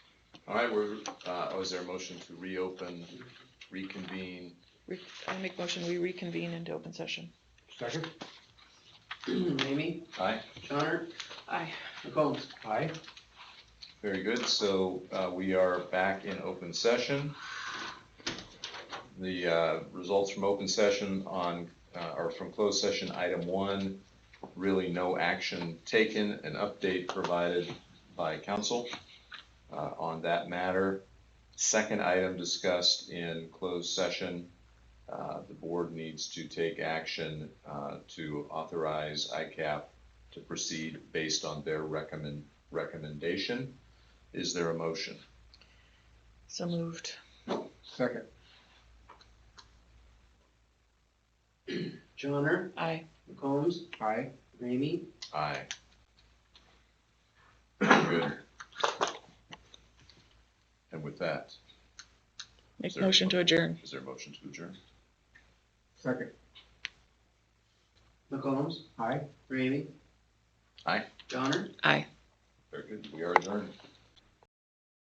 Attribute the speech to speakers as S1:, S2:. S1: All right, we're, uh, oh, is there a motion to reopen, reconvene?
S2: Re- I make motion, we reconvene into open session.
S3: Second?
S4: Amy,
S1: Aye.
S4: Connor,
S2: Aye.
S4: McCombs.
S3: Aye.
S1: Very good, so uh, we are back in open session. The uh, results from open session on, uh, or from closed session, item one, really no action taken, an update provided by council uh, on that matter. Second item discussed in closed session, uh, the board needs to take action uh, to authorize ICAP to proceed based on their recommend, recommendation. Is there a motion?
S2: So moved.
S3: Second.
S4: Johnner,
S2: Aye.
S4: McCombs,
S3: Aye.
S4: Ramey,
S1: Aye. Good. And with that,
S2: Make
S1: Sorry.
S2: motion to adjourn.
S1: is there a motion to adjourn?
S3: Second.
S4: McCombs,
S3: Aye.
S4: Ramey.
S1: Aye.
S4: Johnner.
S2: Aye.
S1: Very good, we are adjourned.